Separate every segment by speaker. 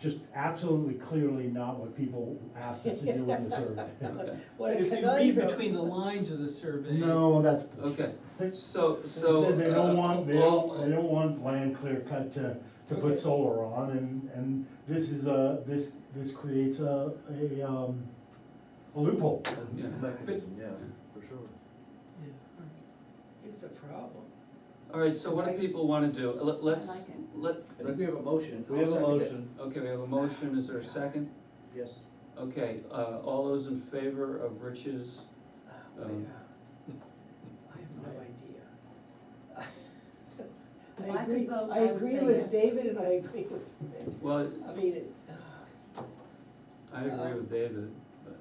Speaker 1: just absolutely clearly not what people asked us to do in the survey.
Speaker 2: Okay.
Speaker 3: What a
Speaker 4: If you
Speaker 3: canoe.
Speaker 4: read between the lines of the survey.
Speaker 1: No, that's.
Speaker 2: Okay,
Speaker 1: They
Speaker 2: so, so.
Speaker 1: said they don't
Speaker 2: uh,
Speaker 1: want, they
Speaker 2: all-
Speaker 1: don't, they don't want land clear cut to, to
Speaker 4: Okay.
Speaker 1: put solar on and, and this is a, this, this creates a, a, um, a loophole.
Speaker 2: Yeah.
Speaker 4: Mechanism,
Speaker 5: yeah, for sure.
Speaker 4: Yeah, all right.
Speaker 3: It's a problem.
Speaker 2: All right, so what do people wanna do? Let,
Speaker 6: I
Speaker 2: let's,
Speaker 6: like it.
Speaker 2: let,
Speaker 5: I think
Speaker 2: let's,
Speaker 5: we have a motion.
Speaker 3: We have a
Speaker 5: I'll second it.
Speaker 3: motion.
Speaker 2: okay, we have a motion, is there a second?
Speaker 5: Yes.
Speaker 2: Okay, uh, all those in favor of Rich's,
Speaker 4: Oh.
Speaker 2: um,
Speaker 3: Oh, I have no idea.
Speaker 6: If I
Speaker 3: agree-
Speaker 6: could vote,
Speaker 3: I
Speaker 6: I would
Speaker 3: agree
Speaker 6: say
Speaker 3: with
Speaker 6: yes.
Speaker 3: David and I agree with, Rich.
Speaker 2: well,
Speaker 3: I mean, it, ah,
Speaker 2: I agree with David, but,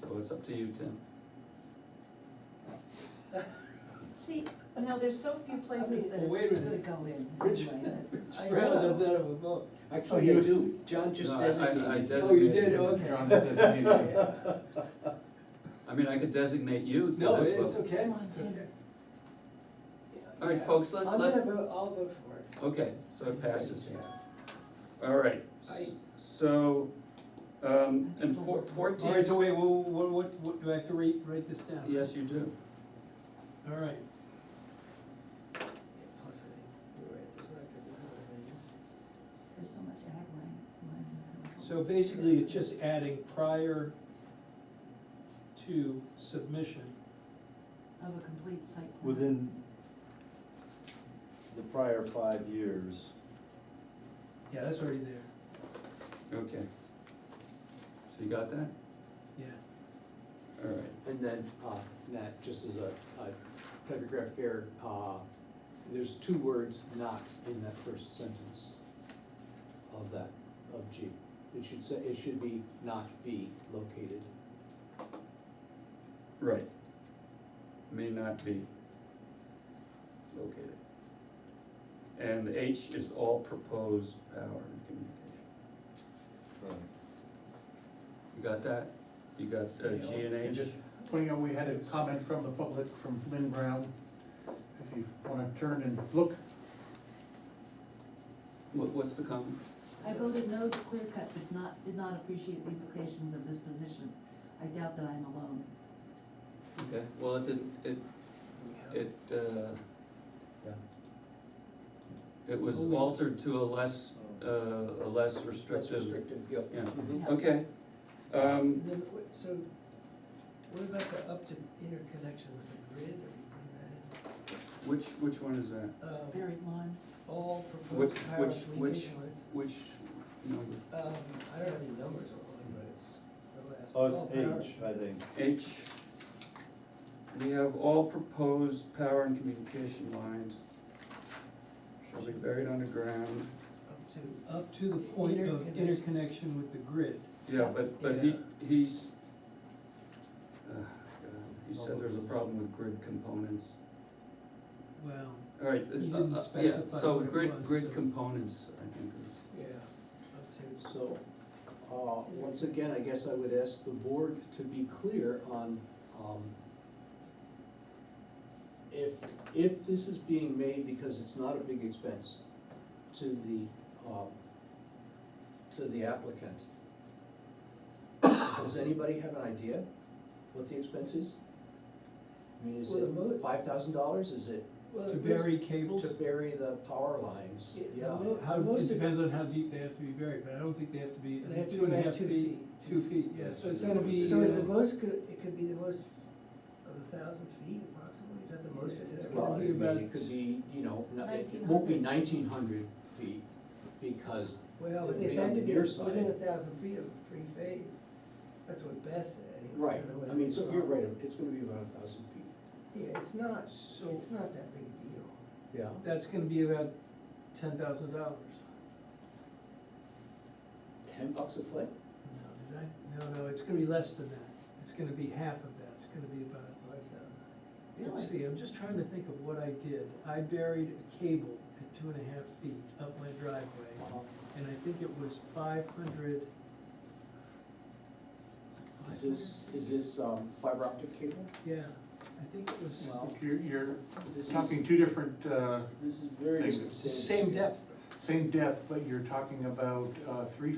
Speaker 2: so it's up to you, Tim.
Speaker 6: See, now there's so few places that
Speaker 4: Well, wait
Speaker 6: it's
Speaker 4: a
Speaker 6: gonna
Speaker 4: minute.
Speaker 6: go in.
Speaker 4: Rich-
Speaker 6: anyway, that-
Speaker 3: I
Speaker 4: Brown does
Speaker 3: know.
Speaker 4: not have a vote.
Speaker 1: Oh,
Speaker 5: Actually,
Speaker 1: he
Speaker 5: I
Speaker 1: was-
Speaker 5: do, John just
Speaker 2: No, I- I- I
Speaker 5: designated.
Speaker 2: designate-
Speaker 4: Oh, you did, okay.
Speaker 7: John designated.
Speaker 3: Yeah.
Speaker 2: I mean, I could designate you to
Speaker 4: No,
Speaker 2: this,
Speaker 4: it's
Speaker 2: but-
Speaker 4: okay.
Speaker 6: Come on, Tim.
Speaker 4: Okay.
Speaker 2: All right,
Speaker 3: Yeah.
Speaker 2: folks, let-
Speaker 3: I'm
Speaker 2: let-
Speaker 3: gonna vote, I'll vote for it.
Speaker 2: okay, so it passes.
Speaker 3: Yeah.
Speaker 2: All right,
Speaker 3: I-
Speaker 2: so, um, and four-
Speaker 4: All
Speaker 2: fourteen.
Speaker 4: right, so wait, what, what, what, what- do I have to write, write this down?
Speaker 2: Yes, you do.
Speaker 4: All right,
Speaker 3: Plus, I think you're right, there's not good weather in any instances.
Speaker 6: There's so much ag land, land and
Speaker 4: so
Speaker 6: control.
Speaker 4: basically it's just adding prior to submission.
Speaker 6: Of a complete site. plan.
Speaker 5: Within the prior five years.
Speaker 4: Yeah, that's already there,
Speaker 2: Okay. So you got that?
Speaker 4: yeah.
Speaker 2: All right.
Speaker 5: And then, uh, Nat, just as a a typographic error, uh, there's two words not in that first sentence of that, of G. It should say, it should be not be located.
Speaker 2: Right. May not be located. And H is all proposed power and communication. You got that? You got uh, G and
Speaker 7: And
Speaker 2: H?
Speaker 7: just putting on, we had a comment from the public, from Lynn Brown. If you wanna turn and look,
Speaker 2: What, what's the comment?
Speaker 6: I voted no to clear cut, but not, did not appreciate the implications of this position. I doubt that I'm alone.
Speaker 2: Okay, well, it didn't, it, it, uh, it was altered to a less, uh, a less
Speaker 5: That's
Speaker 2: restrictive,
Speaker 5: restrictive, yep.
Speaker 2: yeah.
Speaker 5: Mhm.
Speaker 6: Yeah.
Speaker 2: Okay. Um,
Speaker 3: And then, wh- so, what about the Upton interconnection with the grid, are you putting that in?
Speaker 2: which, which one is that?
Speaker 3: Um,
Speaker 6: Buried lines,
Speaker 3: all
Speaker 2: Which,
Speaker 3: proposed power
Speaker 2: which, which,
Speaker 3: communication lines.
Speaker 2: which number?
Speaker 3: Um, I don't have any numbers on mine, but it's the last.
Speaker 1: Oh,
Speaker 2: oh,
Speaker 3: all power-
Speaker 5: I think.
Speaker 2: H, we have all proposed power and communication lines shall be buried underground.
Speaker 3: Up to,
Speaker 4: Up to the point of
Speaker 3: Interconnection.
Speaker 4: interconnection with the grid.
Speaker 2: Yeah, but, but he,
Speaker 3: Yeah.
Speaker 2: he's, uh, God, he said there's a problem with grid components.
Speaker 4: Well,
Speaker 2: All right,
Speaker 4: He
Speaker 2: uh,
Speaker 4: didn't
Speaker 2: uh, yeah,
Speaker 4: specify
Speaker 2: so
Speaker 4: what it
Speaker 2: grid,
Speaker 4: was,
Speaker 2: grid
Speaker 4: so-
Speaker 2: components, I think is.
Speaker 3: yeah, up to.
Speaker 5: So, uh, once again, I guess I would ask the board to be clear on, um, if, if this is being made because it's not a big expense to the, um, to the applicant, does anybody have an idea what the expense is? I mean, is
Speaker 3: Well, the mo-
Speaker 5: it five thousand dollars? Is it
Speaker 3: Well,
Speaker 4: to
Speaker 3: it was-
Speaker 4: bury cables,
Speaker 5: to bury the power lines?
Speaker 3: Yeah, the
Speaker 5: Yeah.
Speaker 3: mo-
Speaker 4: how, it
Speaker 3: most-
Speaker 4: depends on how deep they have to be buried, but I don't think they have to be, I
Speaker 3: They
Speaker 4: think
Speaker 3: have to
Speaker 4: two and a
Speaker 3: go
Speaker 4: half
Speaker 3: two
Speaker 4: feet.
Speaker 3: feet.
Speaker 4: Two feet, yeah, so it's gonna be.
Speaker 3: So
Speaker 4: uh,
Speaker 3: if the most could, it could be the most of a thousand feet approximately, is that the most it's
Speaker 4: Yeah.
Speaker 5: Well,
Speaker 3: gonna
Speaker 5: I
Speaker 3: be?
Speaker 4: be
Speaker 5: mean,
Speaker 4: about-
Speaker 5: it could be, you know, not- it won't be nineteen hundred feet, because,
Speaker 3: Well,
Speaker 5: it'd
Speaker 3: they
Speaker 5: be
Speaker 3: had
Speaker 5: on
Speaker 3: to
Speaker 5: the
Speaker 3: be
Speaker 5: near
Speaker 3: within
Speaker 5: side.
Speaker 3: a thousand feet of three phase, that's what Beth said. anyway.
Speaker 5: right,
Speaker 3: don't know whether
Speaker 5: I mean,
Speaker 3: it's
Speaker 5: so you're
Speaker 3: wrong.
Speaker 5: right, it's gonna be about a thousand feet.
Speaker 3: Yeah, it's not, it's
Speaker 4: So-
Speaker 3: not that big a deal.
Speaker 5: Yeah.
Speaker 4: That's gonna be about ten thousand dollars.
Speaker 5: Ten bucks a foot?
Speaker 4: No, did I? No, no, it's gonna be less than that. It's gonna be half of that. It's gonna be about,
Speaker 3: Five thousand.
Speaker 4: let's see, I'm just trying to think of what I did. I buried a cable at two and a half feet up my driveway. And I think it was five hundred.
Speaker 5: Is this, is this um, fiber optic cable?
Speaker 4: Yeah, I think it was,
Speaker 5: Well,
Speaker 7: you're, you're
Speaker 5: This
Speaker 7: talking
Speaker 5: is,
Speaker 7: two different, uh,
Speaker 5: this is very
Speaker 7: Things.
Speaker 4: it's the
Speaker 5: substantial.
Speaker 4: same depth.
Speaker 7: same depth, but you're talking about, uh, three